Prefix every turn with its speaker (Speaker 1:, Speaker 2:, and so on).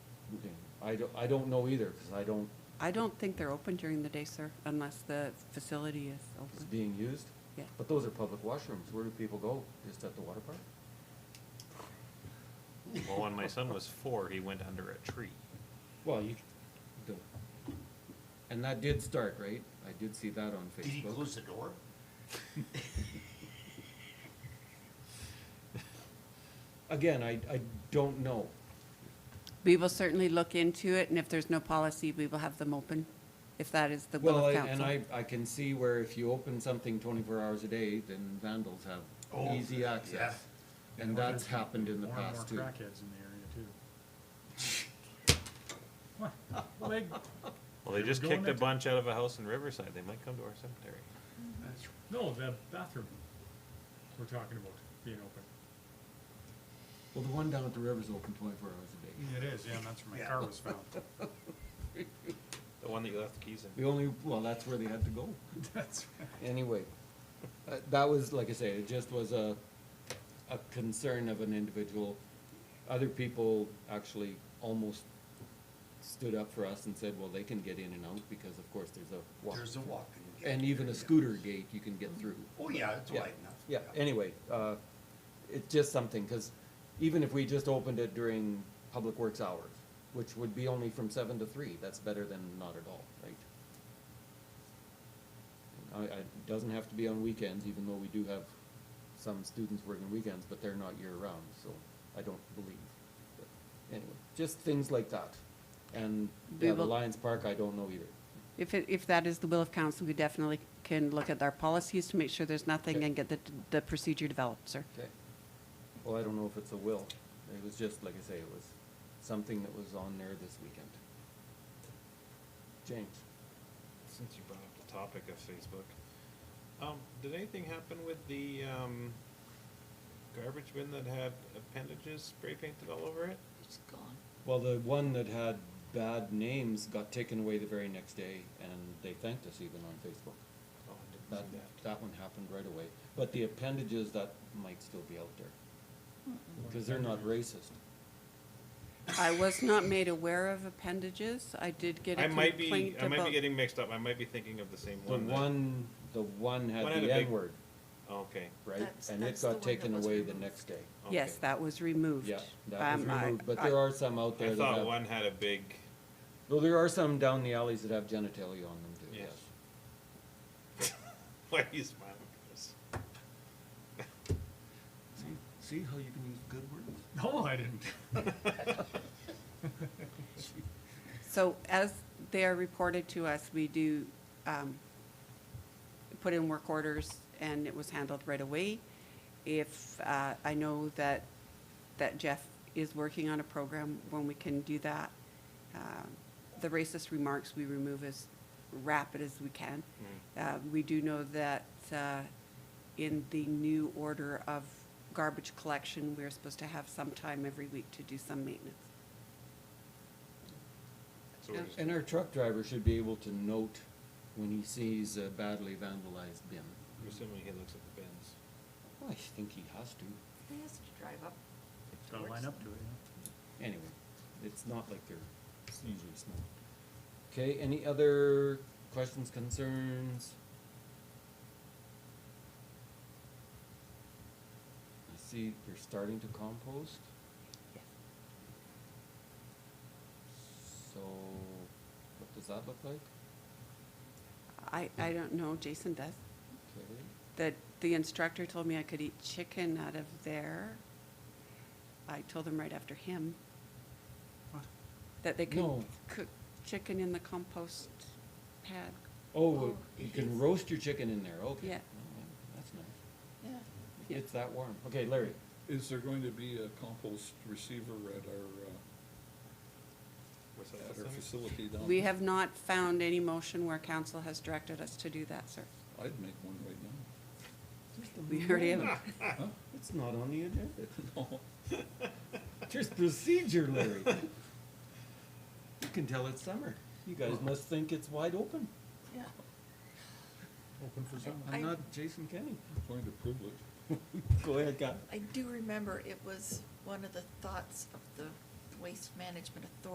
Speaker 1: I don't, I don't know either, because I don't,
Speaker 2: I don't think they're open during the day, sir, unless the facility is
Speaker 1: it's
Speaker 2: open.
Speaker 1: being used.
Speaker 2: Yeah.
Speaker 1: But those are public washrooms, where do people go? Just at the water park?
Speaker 3: Well, when my son was four, he went under a tree.
Speaker 1: Well, you, the, and that did start, right? I did see that on
Speaker 4: Did he
Speaker 1: Facebook.
Speaker 4: close the door?
Speaker 1: Again, I, I don't know.
Speaker 2: We will certainly look into it, and if there's no policy, we will have them open, if that is the will
Speaker 1: Well, I-
Speaker 2: of
Speaker 1: and I,
Speaker 2: council.
Speaker 1: I can see where if you open something twenty-four hours a day, then vandals have
Speaker 4: Oh,
Speaker 1: easy
Speaker 4: yeah.
Speaker 1: access. And that's happened in the past too.
Speaker 5: More and more crackheads in the area too. What? Well, they-
Speaker 3: Well, they
Speaker 5: They were
Speaker 3: just
Speaker 5: going
Speaker 3: kicked a
Speaker 5: into-
Speaker 3: bunch out of a house in Riverside. They might come to our cemetery.
Speaker 5: No, the bathroom we're talking about being open.
Speaker 1: Well, the one down at the river's open twenty-four hours a day.
Speaker 5: It is, yeah, and that's where my
Speaker 4: Yeah.
Speaker 5: car was found.
Speaker 3: The one that you left the keys in.
Speaker 1: The only, well, that's where they had to go.
Speaker 5: That's,
Speaker 1: Anyway, uh, that was, like I say, it just was a, a concern of an individual. Other people actually almost stood up for us and said, well, they can get in and out because of course there's a walk.
Speaker 4: There's a walk.
Speaker 1: And even a scooter gate you can get through.
Speaker 4: Oh, yeah, it's
Speaker 1: Yeah,
Speaker 4: wide enough.
Speaker 1: Yeah, anyway, uh, it's just something, cause even if we just opened it during public works hours, which would be only from seven to three, that's better than not at all, right? I, I, it doesn't have to be on weekends, even though we do have some students working weekends, but they're not year-round, so I don't believe. But Anyway, just things like that. And,
Speaker 2: We
Speaker 1: yeah, the
Speaker 2: will-
Speaker 1: Lions Park, I don't know either.
Speaker 2: If, it- if that is the will of council, we definitely can look at our policies to make sure there's nothing
Speaker 1: Okay.
Speaker 2: and get the, the procedure developed, sir.
Speaker 1: Okay. Well, I don't know if it's a will. It was just, like I say, it was something that was on there this weekend. James?
Speaker 3: Since you brought up the topic of Facebook, um, did anything happen with the, um, garbage bin that had appendages spray painted all over it?
Speaker 4: It's gone.
Speaker 1: Well, the one that had bad names got taken away the very next day, and they thanked us even on Facebook.
Speaker 3: Oh,
Speaker 1: That,
Speaker 3: I didn't see that.
Speaker 1: that one happened right away. But the appendages, that might still be out there.
Speaker 3: Mm-hmm.
Speaker 1: Because they're not racist.
Speaker 2: I was not made aware of appendages. I did get a
Speaker 3: I might
Speaker 2: complaint
Speaker 3: be, I might
Speaker 2: about.
Speaker 3: be getting mixed up. I might be thinking of the same
Speaker 1: The
Speaker 3: one. that-
Speaker 1: one, the one
Speaker 3: One
Speaker 1: had
Speaker 3: had
Speaker 1: the
Speaker 3: a big-
Speaker 1: N-word,
Speaker 3: Okay.
Speaker 1: right?
Speaker 6: That's-
Speaker 1: And it
Speaker 6: that's the
Speaker 1: got
Speaker 6: one that
Speaker 1: taken
Speaker 6: was
Speaker 1: away the
Speaker 6: removed.
Speaker 1: next day.
Speaker 2: Yes,
Speaker 3: okay.
Speaker 2: that was removed.
Speaker 1: Yeah, that was
Speaker 2: Um, I-
Speaker 1: removed, but
Speaker 2: I-
Speaker 1: there are some out there
Speaker 3: I
Speaker 1: that
Speaker 3: thought
Speaker 1: have.
Speaker 3: one had a big,
Speaker 1: Though there are some down the alleys that have genitalia on them too, yes.
Speaker 3: Yes. why are you smiling, Chris?
Speaker 1: See how you can use good words?
Speaker 5: no, I didn't.
Speaker 2: So as they are reported to us, we do um, put in work orders, and it was handled right away. If, uh, I know that, that Jeff is working on a program when we can do that. Um, The racist remarks we remove as rapid as we can. Uh, We do know that uh, in the new order of garbage collection, we're supposed to have some time every week to do some maintenance.
Speaker 3: So we're just-
Speaker 1: And our truck driver should be able to note when he sees a badly vandalized bin.
Speaker 3: I'm assuming he looks at the bins.
Speaker 1: Well, I think he has to.
Speaker 6: He has to drive up.
Speaker 5: Gotta
Speaker 6: towards
Speaker 5: line up
Speaker 6: them.
Speaker 5: to it,
Speaker 1: Anyway, it's not like they're usually small. Okay, any other questions, concerns? I see they're starting to compost. So, what does that look like?
Speaker 2: I, I don't know, Jason does.
Speaker 1: Okay.
Speaker 2: The, the instructor told me I could eat chicken out of there. I told him right after him
Speaker 5: What?
Speaker 2: that they
Speaker 1: No.
Speaker 2: can cook chicken in the compost pad.
Speaker 1: Oh,
Speaker 6: Oh,
Speaker 1: you
Speaker 6: it
Speaker 1: can
Speaker 6: is.
Speaker 1: roast your chicken in there, okay.
Speaker 2: Yeah.
Speaker 1: Oh, That's nice.
Speaker 6: Yeah.
Speaker 2: Yeah.
Speaker 1: It's that warm. Okay, Larry.
Speaker 7: Is there going to be a compost receiver at our,
Speaker 3: What's
Speaker 7: uh,
Speaker 3: that,
Speaker 7: at our
Speaker 3: Sam?
Speaker 7: facility down?
Speaker 2: We
Speaker 7: there?
Speaker 2: have not found any motion where council has directed us to do that, sir.
Speaker 7: I'd make one right now.
Speaker 2: We already have,
Speaker 7: Huh?
Speaker 1: It's not on the agenda.
Speaker 7: No.
Speaker 1: Just procedure, Larry. You can tell it's summer. You guys must think it's wide open.
Speaker 6: Yeah.
Speaker 5: Open for someone.
Speaker 6: I-
Speaker 1: I'm not Jason Kenny.
Speaker 7: I'm going to prove it.
Speaker 1: Go ahead, Guy.
Speaker 6: I do remember it was one of the thoughts of the Waste Management Authority